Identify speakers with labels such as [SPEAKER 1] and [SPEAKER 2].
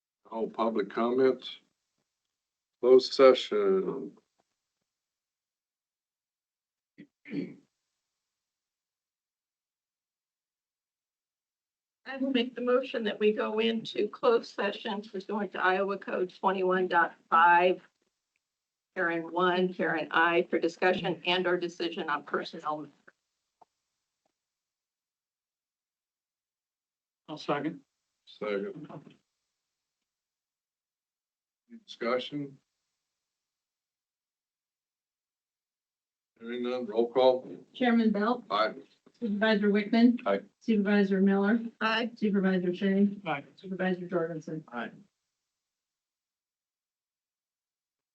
[SPEAKER 1] No public comments. Closed session.
[SPEAKER 2] I will make the motion that we go into closed session pursuant to Iowa Code 21.5, Karen one, Karen I, for discussion and or decision on personnel.
[SPEAKER 3] I'll second.
[SPEAKER 1] Second. Discussion. Hearing none, roll call.
[SPEAKER 4] Chairman Belt,
[SPEAKER 1] Aye.
[SPEAKER 4] Supervisor Wickman.
[SPEAKER 1] Aye.
[SPEAKER 4] Supervisor Miller,
[SPEAKER 2] Aye.
[SPEAKER 4] Supervisor Shea,
[SPEAKER 3] Aye.
[SPEAKER 4] Supervisor Jorgensen.